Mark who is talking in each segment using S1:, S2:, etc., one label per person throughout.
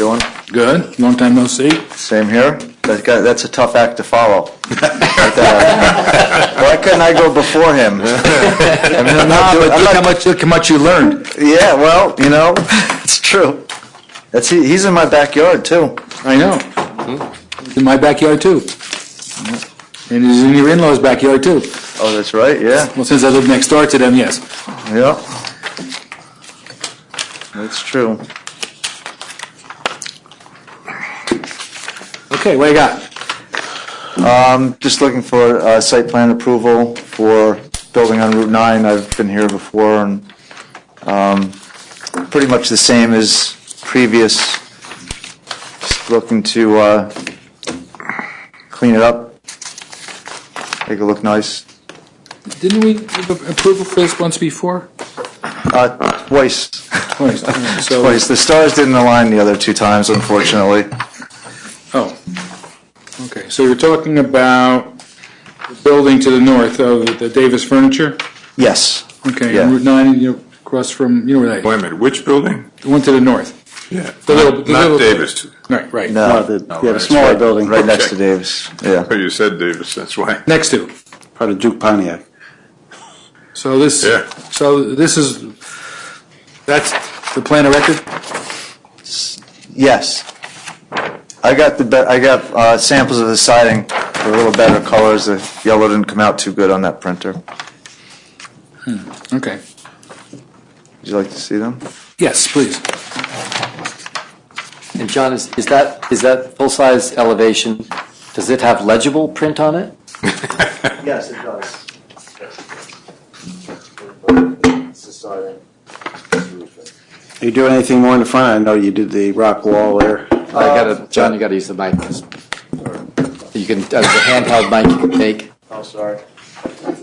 S1: Doing?
S2: Good. Long time no see.
S1: Same here. That guy, that's a tough act to follow. uh, Why couldn't I go before him? I mean, I'm not doing, I'm
S2: look how
S1: not,
S2: much look how much you learned.
S1: yeah, well, you know, it's true. That's, he- he's in my backyard too.
S2: I know. In my backyard too. And it's in your in-laws' backyard too.
S1: Oh, that's right, yeah,
S2: Well, since I live next door to them, yes.
S1: yeah. That's true.
S2: Okay, what do you got?
S1: Um, Just looking for uh, site plan approval for building on Route 9. I've been here before, and um, pretty much the same as previous. Just looking to uh, clean it up, make it look nice.
S2: Didn't we give approval for this once before?
S1: Uh, Twice,
S2: Twice. So,
S1: twice. The stars didn't align the other two times, unfortunately.
S2: oh. Okay, so you're talking about the building to the north of the Davis Furniture?
S1: Yes.
S2: Okay,
S1: Yeah.
S2: on Route 9, you know, across from, you know where that,
S3: Wait a minute, which building?
S2: the one to the north.
S3: Yeah.
S2: The little-
S3: Not
S2: the
S3: not
S2: little-
S3: Davis.
S2: Right, right.
S4: Uh,
S1: No, the
S3: No,
S1: yeah, the
S3: that's
S1: smaller
S3: right.
S1: building, Uh, right next to
S3: Okay.
S1: Davis. Yeah.
S3: Oh, you said Davis, that's why.
S2: Next to.
S4: part of Duke Pontiac.
S2: So this,
S3: Yeah.
S2: so this is, that's the plan of record?
S1: Yes. I got the, be- I got uh, samples of the siding for a little better colors. The yellow didn't come out too good on that printer. Would
S2: Okay.
S1: you like to see them?
S2: Yes, please.
S5: And John, is, is that, is that full-size elevation, does it have legible print on it?
S1: Yes, it does.
S4: Are you doing anything more in the front? I know you did the rock wall there.
S5: I
S4: Uh,
S5: gotta, John, you gotta use the mic. You can, uh, the handheld mic you can take,
S1: Oh, sorry.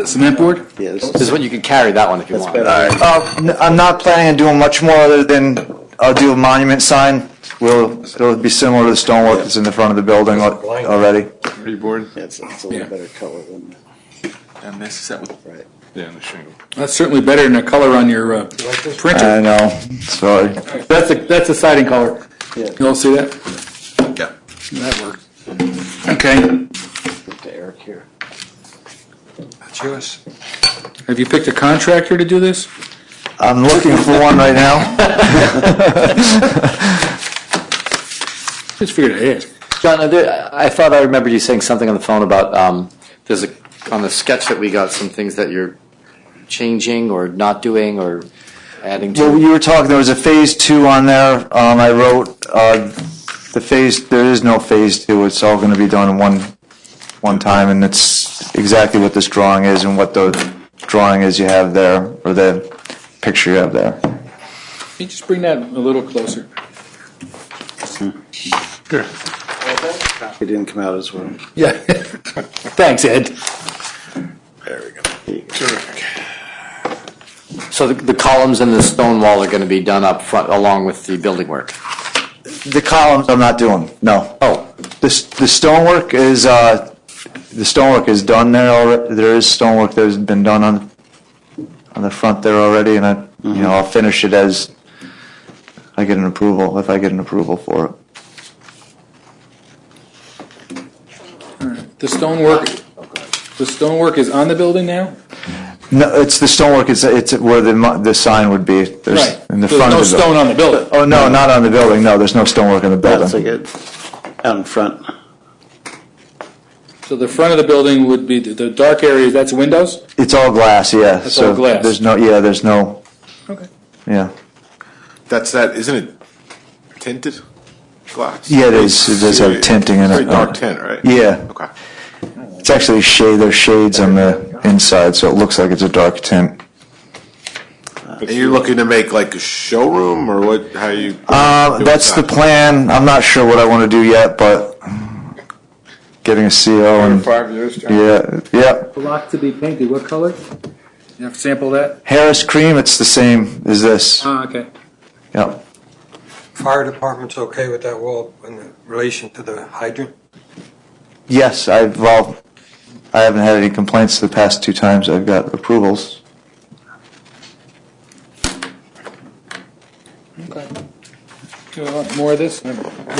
S2: Cement board?
S4: Yes.
S5: this is what, you can carry that one if you
S4: That's
S5: want.
S4: better.
S1: Uh, I'm not planning on doing much more other than I'll do a monument sign. Will, it'll be similar to the stonework that's in the front of the building al- already.
S3: Freeboard?
S4: It's, it's a
S2: Yeah.
S4: little better color than
S3: And this is that
S4: Right.
S3: Yeah, on the shingle.
S2: That's certainly better than the color on your uh,
S1: I
S2: printer.
S1: know, sorry.
S2: That's the, that's the siding color.
S4: Yeah.
S2: You all see that?
S3: Yeah.
S2: That worked. Okay.
S4: to Eric here.
S3: That's yours.
S2: Have you picked a contractor to do this?
S1: I'm looking for one right now.
S2: Just figured I'd ask.
S5: John, are there- I I thought I remembered you saying something on the phone about, um, there's a, on the sketch that we got, some things that you're changing or not doing or adding to.
S1: Well, you were talking, there was a phase two on there. Um, I wrote, uh, the phase, there is no phase two. It's all gonna be done in one, one time, and it's exactly what this drawing is and what the drawing is you have there, or the picture you have there.
S2: Can you just bring that a little closer?
S4: It didn't come out as well.
S2: Yeah. Thanks, Ed.
S3: There we go.
S4: There you go.
S3: Terrific.
S5: So the, the columns and the stone wall are gonna be done up front along with the building work?
S1: The columns, I'm not doing, no.
S5: Oh,
S1: The, s- the stonework is, uh, the stonework is done there already. There is stonework that's been done on, on the front there already, and I, you know, I'll finish it as I get an approval, if I get an approval for it.
S2: The stonework, the stonework is on the building now?
S1: No, it's the stonework, it's, it's where the, mo- the sign would be, there's,
S2: Right.
S1: in the
S2: There's
S1: front
S2: no
S1: of the building.
S2: stone on the building.
S1: Oh, no, not on the building, no, there's no stonework in the
S4: That's
S1: building.
S4: like it out in front.
S2: So the front of the building would be, the- the dark areas, that's windows?
S1: It's all glass, yeah,
S2: It's all
S1: so,
S2: glass.
S1: there's no, yeah, there's no,
S2: Okay.
S1: yeah.
S3: That's that, isn't it tinted glass?
S1: Yeah, it is. It does have tinting in it.
S3: Very dark tint, right?
S1: Yeah.
S3: Okay.
S1: It's actually shade, there's shades on the inside, so it looks like it's a dark tint.
S3: And you're looking to make like a showroom or what, how you?
S1: Uh,
S3: doing
S1: that's the
S3: that?
S1: plan, I'm not sure what I wanna do yet, but getting a CO and,
S3: Five years. John?
S1: yeah, yeah.
S2: Block to be painted, what color? You have to sample that?
S1: Harris cream, it's the same as this,
S2: Ah, okay.
S1: yep.
S6: Fire department's okay with that wall in the relation to the hydrant?
S1: Yes, I've, well, I haven't had any complaints the past two times I've got approvals.
S2: do a lot more of this? I don't know.